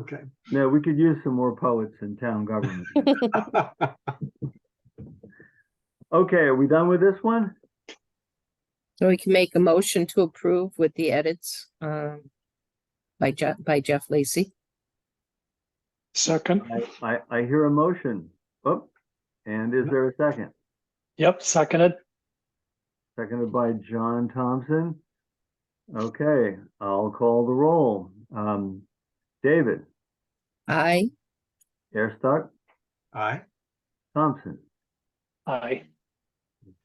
okay. Yeah, we could use some more poets in town government. Okay, are we done with this one? So we can make a motion to approve with the edits um, by Jeff, by Jeff Lacy. Second, I, I, I hear a motion. Oh, and is there a second? yep, seconded. Seconded by John Thompson. Okay, I'll call the roll. Um, David, Aye. Airstock, Aye, Thompson. Aye.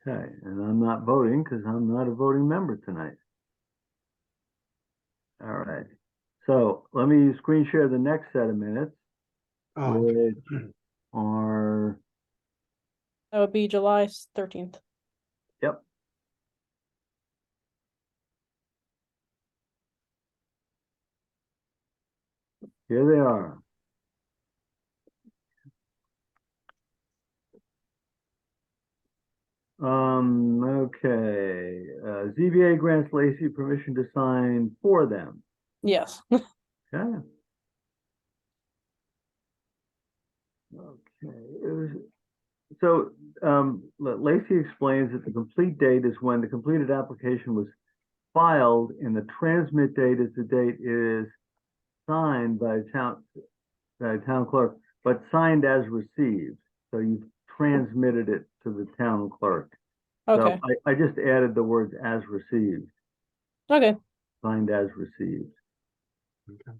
Okay, and I'm not voting because I'm not a voting member tonight. All right, so let me screen share the next set of minutes, oh, which are, That would be July thirteenth. here they are. Um, okay, uh, ZBA grants Lacy permission to sign for them. Yes. Okay. Okay, it was, so, um, La- Lacy explains that the complete date is when the completed application was filed and the transmit date is the date it is signed by town, by town clerk, but signed as received. So you've transmitted it to the town clerk. So Okay. I, I just added the words as received, Okay. signed as received. okay.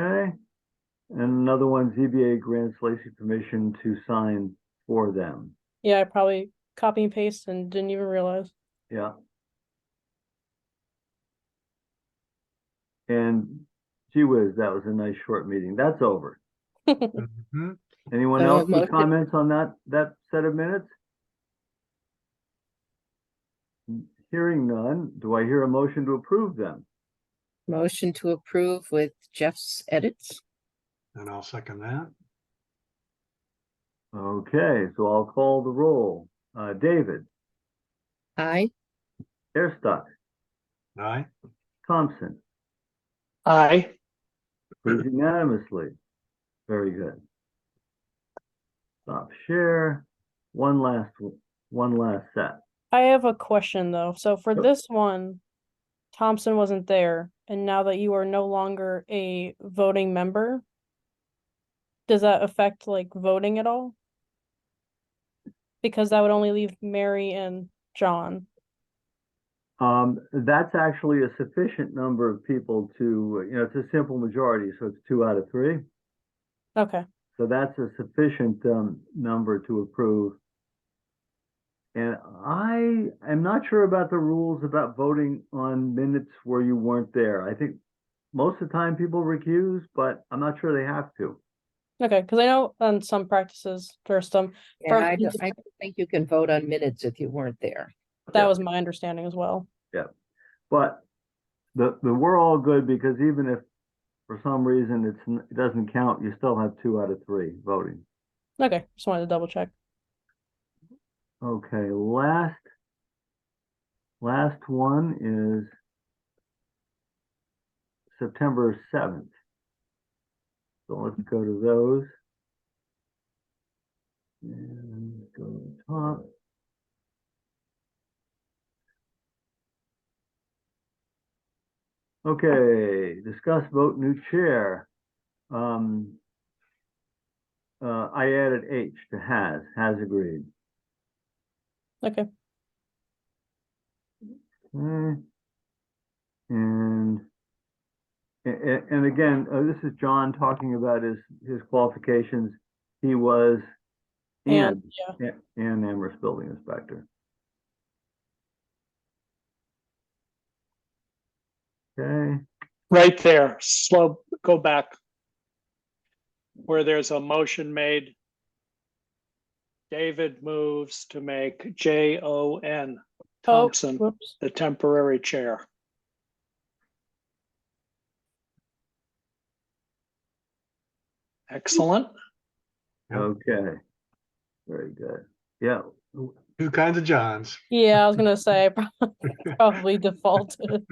Okay. And another one, ZBA grants Lacy permission to sign for them. Yeah, I probably copy and paste and didn't even realize. Yeah. And gee whiz, that was a nice short meeting. That's over. Mhm. Anyone Uh, else motion- with comments on that, that set of minutes? Hearing none, do I hear a motion to approve them? Motion to approve with Jeff's edits. And I'll second that. Okay, so I'll call the roll. Uh, David, Aye. Airstock, Aye, Thompson. Aye. Approved unanimously. Very good. Stop share. One last, w- one last set. I have a question though. So for Sure. this one, Thompson wasn't there, and now that you are no longer a voting member, does that affect like voting at all? Because that would only leave Mary and John. Um, that's actually a sufficient number of people to, you know, it's a simple majority, so it's two out of three. Okay. So that's a sufficient, um, number to approve. And I am not sure about the rules about voting on minutes where you weren't there. I think most of the time people recuse, but I'm not sure they have to. Okay. Because I know on some practices, there's some Yeah, Or- I don't, I don't think you can vote on minutes if you weren't there. Yeah. that was my understanding as well. But the, the, we're all good because even if for some reason it's, n- it doesn't count, you still have two out of three voting. Okay. Just wanted to double check. Okay, last, last one is September seventh. So let's go to those. And go to the top. Okay, discuss vote new chair. Um, uh, I added H to has, has agreed. Okay. Mm. And, a- a- and again, uh, this is John talking about his, his qualifications. He was And in, yeah. in Amherst Building Inspector. Okay, Right there, slow, go back. Where there's a motion made. David moves to make J O N Oh, Thompson whoops. the temporary chair. Excellent. Yep. okay. Very good. Yeah, two kinds of Johns. Oh, Yeah, I was gonna say I prob- probably defaulted.